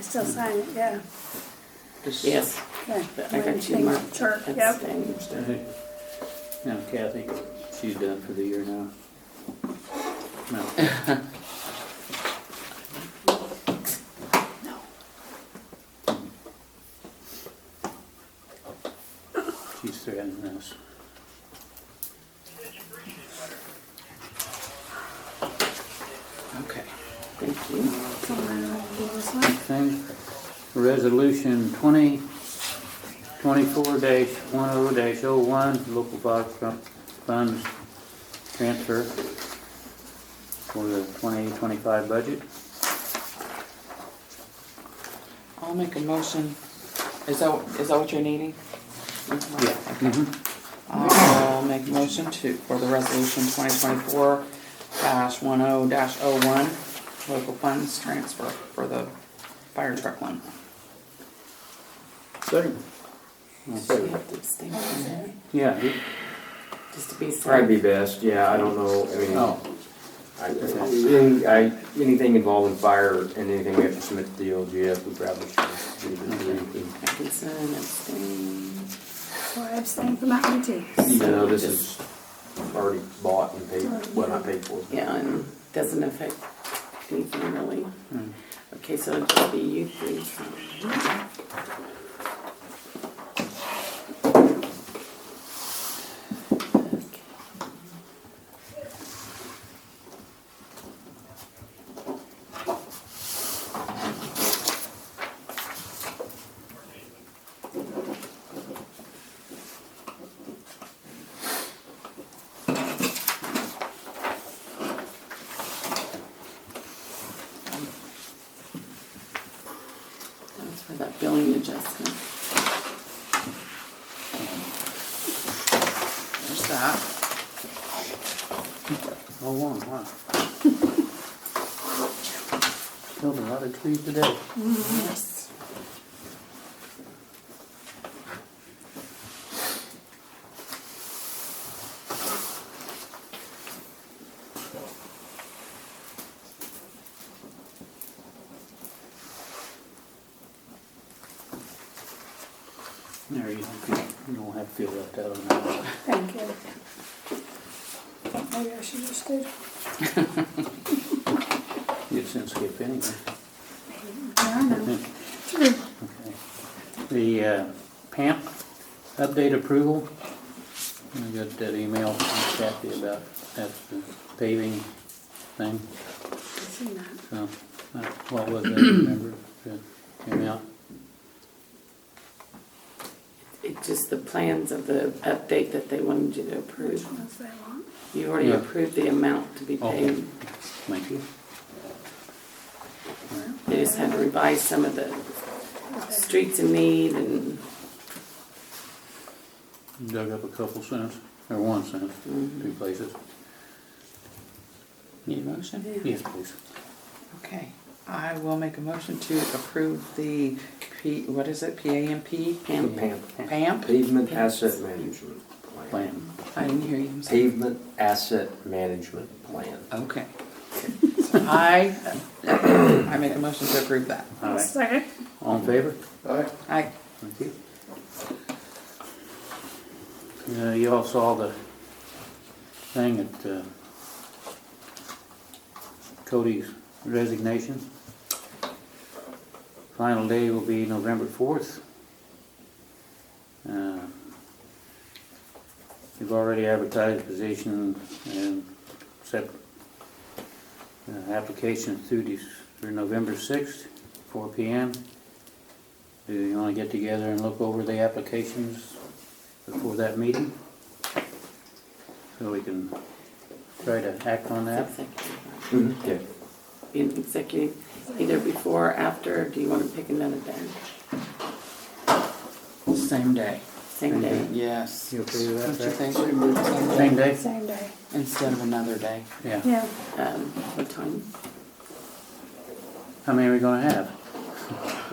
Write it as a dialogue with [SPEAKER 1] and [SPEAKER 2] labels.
[SPEAKER 1] still sign it, yeah.
[SPEAKER 2] This-
[SPEAKER 3] Yes,
[SPEAKER 1] Okay.
[SPEAKER 3] I got you, Mark.
[SPEAKER 1] Sure,
[SPEAKER 3] That's
[SPEAKER 1] yep.
[SPEAKER 3] thing.
[SPEAKER 2] All right. Now Kathy, she's done for the year now. No,
[SPEAKER 3] No.
[SPEAKER 2] she's threatening us. Okay.
[SPEAKER 3] Thank you.
[SPEAKER 1] So I don't know, do this one.
[SPEAKER 2] Thing, resolution twenty, twenty-four dash one oh dash oh one, local box fun- funds transfer for the twenty twenty-five budget.
[SPEAKER 3] I'll make a motion. Is that, is that what you're needing? Okay. I'll make a motion to, for the resolution twenty twenty-four dash one oh dash oh one, local funds transfer for the fire truck one.
[SPEAKER 2] Second. Yeah, you-
[SPEAKER 3] Just to be safe.
[SPEAKER 4] Probably be best, yeah, I don't know, I mean,
[SPEAKER 2] oh,
[SPEAKER 4] I, any- I, anything involving fire and anything we have to submit to the OGF, we probably should do this.
[SPEAKER 3] I can sign, abstain.
[SPEAKER 1] So I abstain from that one too.
[SPEAKER 4] Even though this is already bought and paid, well, not paid for.
[SPEAKER 3] Yeah, and doesn't affect anything really. Okay, so it'll just be you three. That was for that billing adjustment. There's that.
[SPEAKER 2] oh one, wow. Killed a lot of trees today.
[SPEAKER 3] Yes.
[SPEAKER 2] There you go, you don't have to feel left out on that one.
[SPEAKER 1] Thank you. Maybe I should just do.
[SPEAKER 2] You've since skipped anyway.
[SPEAKER 1] I know. True.
[SPEAKER 3] Hmm.
[SPEAKER 2] Okay. The uh, PAMP update approval, I got that email from Kathy about that paving thing,
[SPEAKER 1] Seen that.
[SPEAKER 2] so, uh, what was it, remember, that came out?
[SPEAKER 3] It's just the plans of the update that they wanted you to
[SPEAKER 1] Which
[SPEAKER 3] approve.
[SPEAKER 1] ones they want?
[SPEAKER 3] You already
[SPEAKER 2] Yeah.
[SPEAKER 3] approved the amount to be
[SPEAKER 2] Okay.
[SPEAKER 3] paid.
[SPEAKER 2] Thank you.
[SPEAKER 3] They just had to revise some of the streets in need and
[SPEAKER 2] Dug up a couple cents, or one cent, two places.
[SPEAKER 3] Need a motion?
[SPEAKER 2] Yes, please.
[SPEAKER 3] Okay, I will make a motion to approve the P, what is it, PAMP?
[SPEAKER 4] PAMP.
[SPEAKER 3] PAMP?
[SPEAKER 4] Pavement asset management plan.
[SPEAKER 2] Plan.
[SPEAKER 3] I didn't hear you say.
[SPEAKER 4] Pavement asset management plan.
[SPEAKER 3] Okay. So I, I make a motion to approve that.
[SPEAKER 2] All right,
[SPEAKER 1] Second.
[SPEAKER 2] all in favor?
[SPEAKER 3] I,
[SPEAKER 2] Thank you. Uh, You all saw the thing at uh, Cody's resignation. Final day will be November 4th. Uh, We've already advertised position and accept uh, applications through this, through November 6th, 4 PM. Do you want to get together and look over the applications before that meeting? So we can try to act on that?
[SPEAKER 3] executive,
[SPEAKER 4] Yeah.
[SPEAKER 3] be an executive, either before or after, do you want to pick another day?
[SPEAKER 5] Same day.
[SPEAKER 3] Same day?
[SPEAKER 5] Yes.
[SPEAKER 2] You okay with that,
[SPEAKER 5] Don't you
[SPEAKER 2] Zach?
[SPEAKER 5] think? Same
[SPEAKER 2] Same
[SPEAKER 5] day
[SPEAKER 2] day?
[SPEAKER 1] Same day.
[SPEAKER 5] instead of another day.
[SPEAKER 2] Yeah.
[SPEAKER 1] Yeah.
[SPEAKER 3] Um, what time?
[SPEAKER 2] How many are we gonna have?